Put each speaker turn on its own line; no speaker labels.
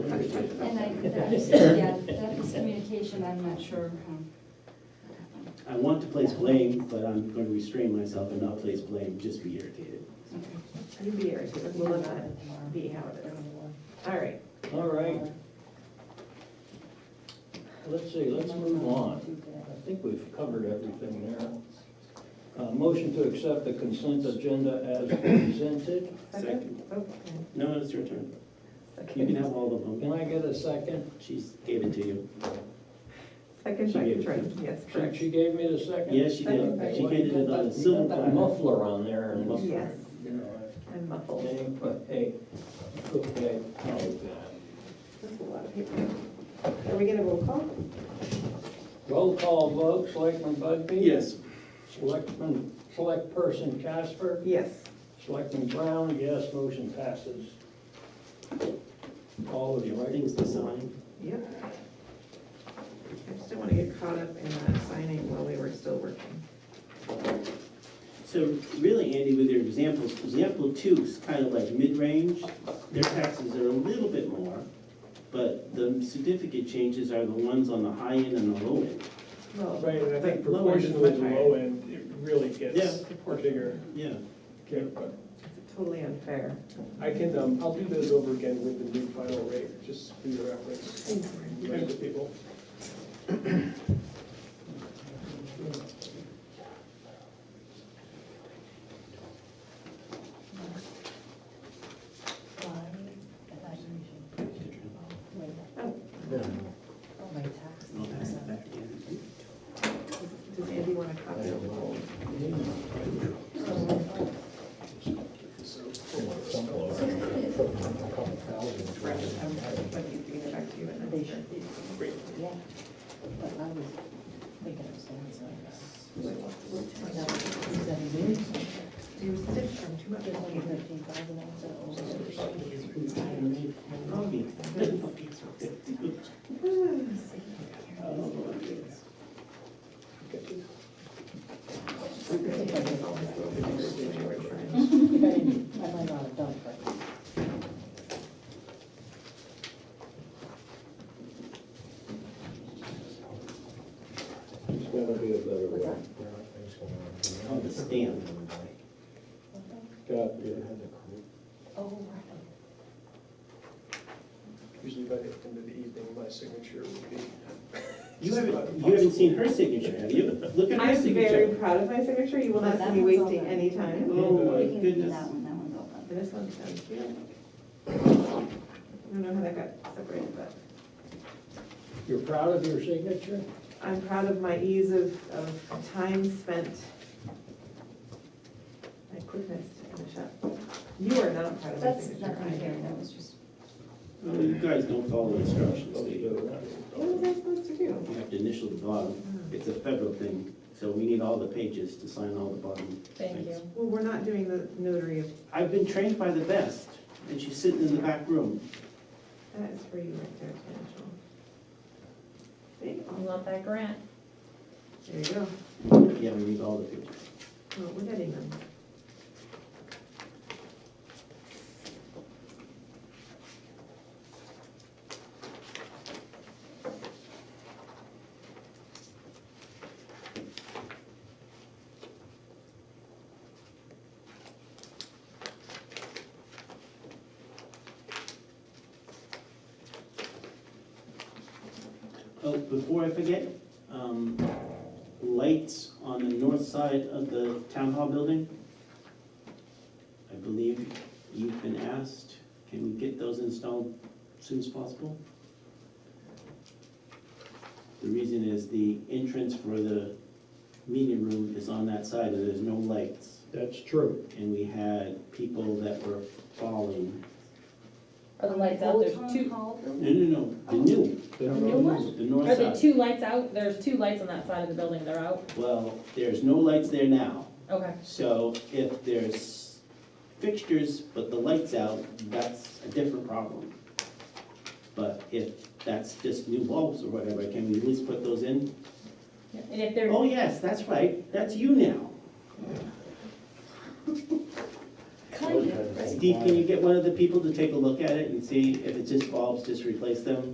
That's- Yeah, that miscommunication, I'm not sure. um,
I want to place blame, but I'm going to restrain myself and not place blame, just be irritated.
okay.
You be irritated, we'll let that be how it is. All right,
All right. Let's see, let's move on. I think we've covered everything there. Uh, Motion to accept the consent agenda as presented.
Second,
okay.
no, it's your turn. You can have all of them.
Can I get a second?
She gave it to you.
Second
She
by
gave it
Katrina,
to
yes,
She-
correct.
She gave me the second?
Yes, she did. She gave it on a silver
Got
platter.
Muffler on there and muffler.
Yes.
you know, I-
I'm muffled.
Hey, but hey, okay, oh,
That's a lot of paper. Are we gonna roll call?
God. Roll call vote, Selectman Bugby?
Yes.
Selectman, select person Casper?
Yes.
Selectman Brown, yes, motion passes. All of you, right?
Things to sign.
Yep. I just didn't want to get caught up in that signing while we were still working.
So really, Andy, with your examples, example two is kind of like mid-range. Their taxes are a little bit more, but the significant changes are the ones on the high end and the low end.
Well,
Right, and I think
low end is
proportionally, the
much higher.
low end, it really gets
Yeah.
a bigger
Yeah.
kick, but
It's Totally unfair.
I can, um, I'll do those over again with the new final rate, just for your reference, and for people.
Uh, Oh,
I'll pass it back to Andy.
Does Andy want to copy of the whole? Correct, I'm lucky to get back to you in that. sure. You sit from too much.
Probably.
There's gotta be a better way.
On the stand.
Got you.
Usually by the end of the evening, my signature would be.
You haven't, you haven't seen her signature, have you? Look at her
I'm very
signature.
proud of my signature, you will not see
That
me
one's
wasting
open.
any time.
Oh, my
We can do
goodness.
that one, that one's open.
This one's done cute. I don't know how that got separated, but
You're proud of your signature?
I'm proud of my ease of, of time spent. My quickness to finish up. You are not proud of my
That's
signature.
nothing here, that was just,
Oh, You guys don't follow instructions, do you?
What was I supposed to do? Hmm.
You have to initial the bottom. It's a federal thing, so we need all the pages to sign all the bottom. Thank you.
Well, we're not doing the notary of,
I've been trained by the best, and she's sitting in the back room.
that is for you right there, Rachel. See?
I love that grant.
There you go.
Yeah, we need all the pages.
Well, we're getting them.
Oh, before I forget, um, lights on the north side of the town hall building. I believe you've been asked, can we get those installed as soon as possible? The reason is the entrance for the meeting room is on that side, and there's no lights.
That's true.
And we had people that were falling,
Are the lights out? There's two,
no, no, no, the new,
The
new one?
the north
are the
side.
two lights out? There's two lights on that side of the building, they're out?
Well, there's no lights there now.
Okay,
So if there's fixtures but the light's out, that's a different problem. But if that's just new bulbs or whatever, can we at least put those in?
and if they're,
Oh, yes, that's right, that's you now.
kind of, right?
Steve, can you get one of the people to take a look at it and see if it's just bulbs, just replace them?